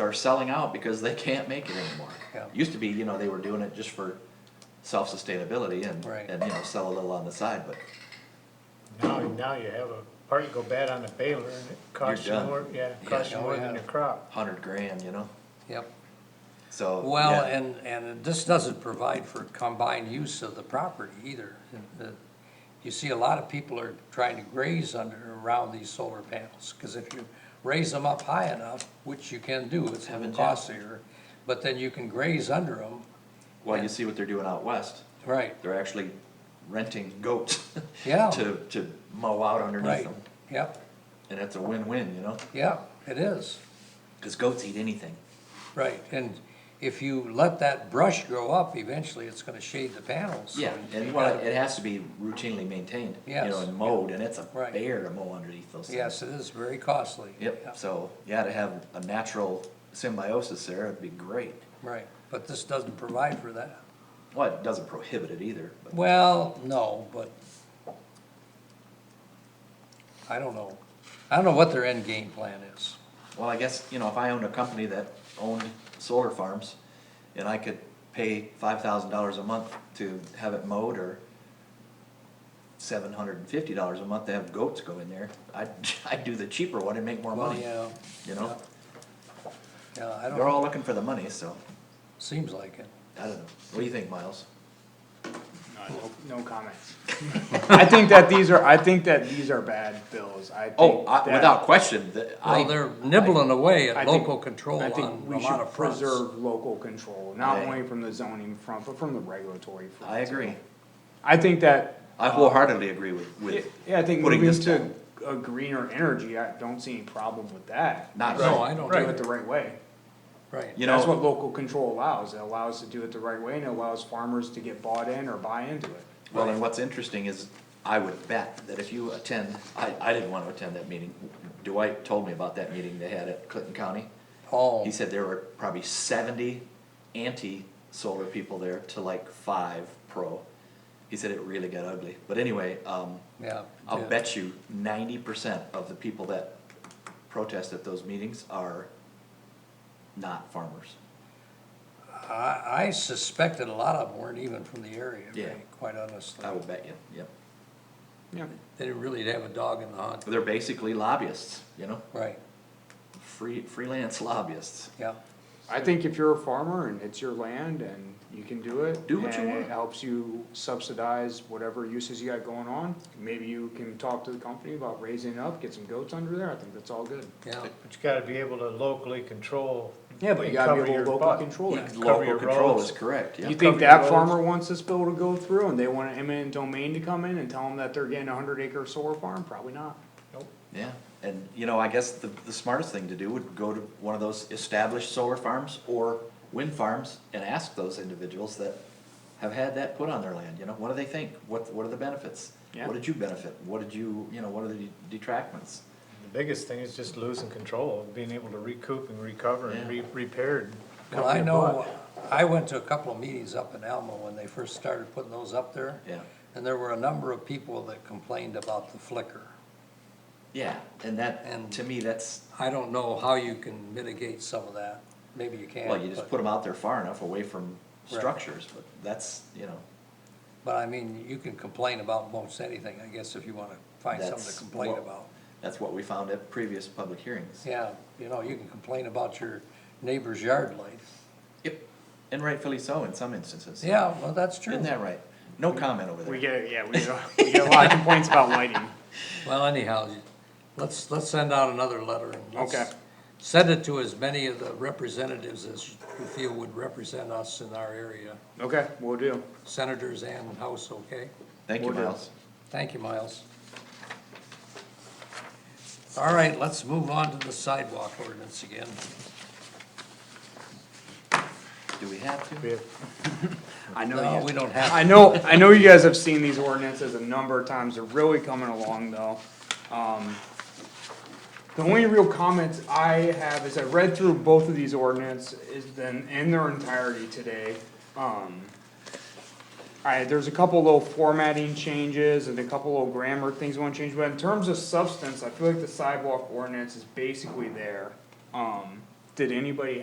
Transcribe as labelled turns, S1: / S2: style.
S1: are selling out because they can't make it anymore.
S2: Yeah.
S1: Used to be, you know, they were doing it just for self-sustainability and,
S2: Right.
S1: and, you know, sell a little on the side, but
S3: Now, now you have a part go bad on the baler and it costs you
S1: done.
S3: more, yeah, it costs you
S2: Yeah.
S3: more than
S2: Yeah.
S3: your crop.
S1: hundred grand, you know,
S2: Yep.
S1: so.
S2: Well,
S1: yeah.
S2: and, and this doesn't provide for combined use of the property either. The- You see, a lot of people are trying to graze under, around these solar panels, because if you raise them up high enough, which you can do, it's a little
S1: Haven't yet.
S2: costlier, but then you can graze under them,
S1: Well, you see what they're doing out west,
S2: right,
S1: they're actually renting goats.
S2: Yeah.
S1: To, to mow out underneath
S2: right,
S1: them,
S2: yep,
S1: and it's a win-win, you know,
S2: yep, it is.
S1: cause goats eat anything.
S2: Right, and if you let that brush grow up, eventually it's gonna shade the panels. so
S1: Yeah,
S2: you
S1: and
S2: gotta-
S1: well, it has to be routinely maintained, you know,
S2: Yes.
S1: and mowed, and it's a
S2: Right.
S1: bear to mow underneath those things.
S2: Yes, it is very costly.
S1: Yep, so, yeah, to have a natural symbiosis there, it'd be great.
S2: Right, but this doesn't provide for that.
S1: Well, it doesn't prohibit it either, but,
S2: Well, no, but I don't know. I don't know what their end game plan is.
S1: well, I guess, you know, if I owned a company that owned solar farms, and I could pay five thousand dollars a month to have it mowed, or seven hundred and fifty dollars a month to have goats go in there, I'd, I'd do the cheaper one and make more
S2: Well,
S1: money,
S2: yeah,
S1: you know?
S2: yeah, I
S1: They're
S2: don't,
S1: all looking for the money, so,
S2: seems like it.
S1: I don't know, what do you think, Miles?
S4: No comments. I think that these are, I think that these are bad bills, I think.
S1: Oh, I-
S4: that-
S1: without question, the- I.
S2: Well, they're nibbling away
S4: I
S2: at
S4: think-
S2: local control
S4: I
S2: on
S4: think
S2: a
S4: we
S2: lot
S4: should
S2: of fronts.
S4: Preserve local control, not
S1: Yeah.
S4: only from the zoning front, but from the regulatory front.
S1: I agree.
S4: I think that,
S1: I wholeheartedly agree with, with.
S4: yeah, I think
S1: putting
S4: moving
S1: this
S4: to
S1: down.
S4: a greener energy, I don't see any problem with that.
S1: Not at
S2: No,
S1: all.
S2: I don't
S4: Do
S2: do
S4: it
S2: it,
S4: the right way.
S2: right.
S1: You
S4: That's
S1: know-
S4: what local control allows, it allows to do it the right way and it allows farmers to get bought in or buy into it.
S1: Well, and what's interesting is, I would bet that if you attend, I, I didn't wanna attend that meeting. Dwight told me about that meeting they had at Clinton County.
S2: Oh,
S1: He said there were probably seventy anti-solar people there to like five pro. He said it really got ugly. But anyway, um,
S2: yeah.
S1: I'll
S2: yeah.
S1: bet you ninety percent of the people that protest at those meetings are not farmers.
S2: I, I suspected a lot of them weren't even from the area,
S1: Yeah.
S2: right, quite honestly.
S1: I will bet you, yep.
S4: Yeah.
S2: They didn't really have a dog in the hunt,
S1: They're basically lobbyists, you know,
S2: right,
S1: free, freelance lobbyists.
S2: yeah.
S4: I think if you're a farmer and it's your land and you can do it.
S1: Do what you
S4: and
S1: want.
S4: it helps you subsidize whatever uses you got going on, maybe you can talk to the company about raising it up, get some goats under there, I think that's all good.
S2: Yeah,
S3: But you gotta be able to locally control.
S4: Yeah, but you
S3: and
S4: gotta
S3: cover
S4: be
S3: your
S4: able to
S3: butt.
S4: local control it.
S3: Cover
S1: Local
S3: your
S1: control is
S3: roads.
S1: correct, yeah.
S4: You think
S3: Cover your
S4: that
S3: roads.
S4: farmer wants this bill to go through and they want an eminent domain to come in and tell them that they're getting a hundred acre solar farm? Probably not.
S1: Yeah, and you know, I guess the, the smartest thing to do would go to one of those established solar farms or wind farms and ask those individuals that have had that put on their land, you know, what do they think? What, what are the benefits?
S4: Yeah.
S1: What did you benefit? What did you, you know, what are the detractments?
S3: The biggest thing is just losing control, being able to recoup and recover and
S1: Yeah.
S3: re- repair and
S2: well,
S3: cover
S2: I
S3: your
S2: know,
S3: butt.
S2: I went to a couple of meetings up in Alma when they first started putting those up there.
S1: Yeah,
S2: And there were a number of people that complained about the flicker.
S1: yeah, and that,
S2: And-
S1: to me, that's,
S2: I don't know how you can mitigate some of that, maybe you can.
S1: well, you just
S2: but-
S1: put them out there far enough away from
S2: Right.
S1: structures, but that's, you know,
S2: But I mean, you can complain about most anything, I guess, if you wanna find something
S1: That's
S2: to complain
S1: what-
S2: about.
S1: that's what we found at previous public hearings.
S2: Yeah, you know, you can complain about your neighbor's yard light.
S1: Yep, and rightfully so in some instances.
S2: Yeah, well, that's true.
S1: Isn't that right? No comment over
S4: We
S1: there.
S4: get, yeah, we get, we get a lot of complaints about lighting.
S2: Well, anyhow, you- let's, let's send out another letter and let's
S4: Okay.
S2: send it to as many of the representatives as you feel would represent us in our area,
S4: Okay, we will do.
S2: senators and House, okay?
S1: Thank you,
S4: We'll do.
S1: Miles.
S2: Thank you, Miles. All right, let's move on to the sidewalk ordinance again.
S1: Do we have to?
S3: We have
S4: I know
S2: No,
S4: you-
S2: we don't have,
S4: I know, I know you guys have seen these ordinances a number of times, they're really coming along though. Um, The only real comments I have is I read through both of these ordinance is then in their entirety today. Um, Alright, there's a couple little formatting changes and a couple little grammar things I wanna change, but in terms of substance, I feel like the sidewalk ordinance is basically there. Um, did anybody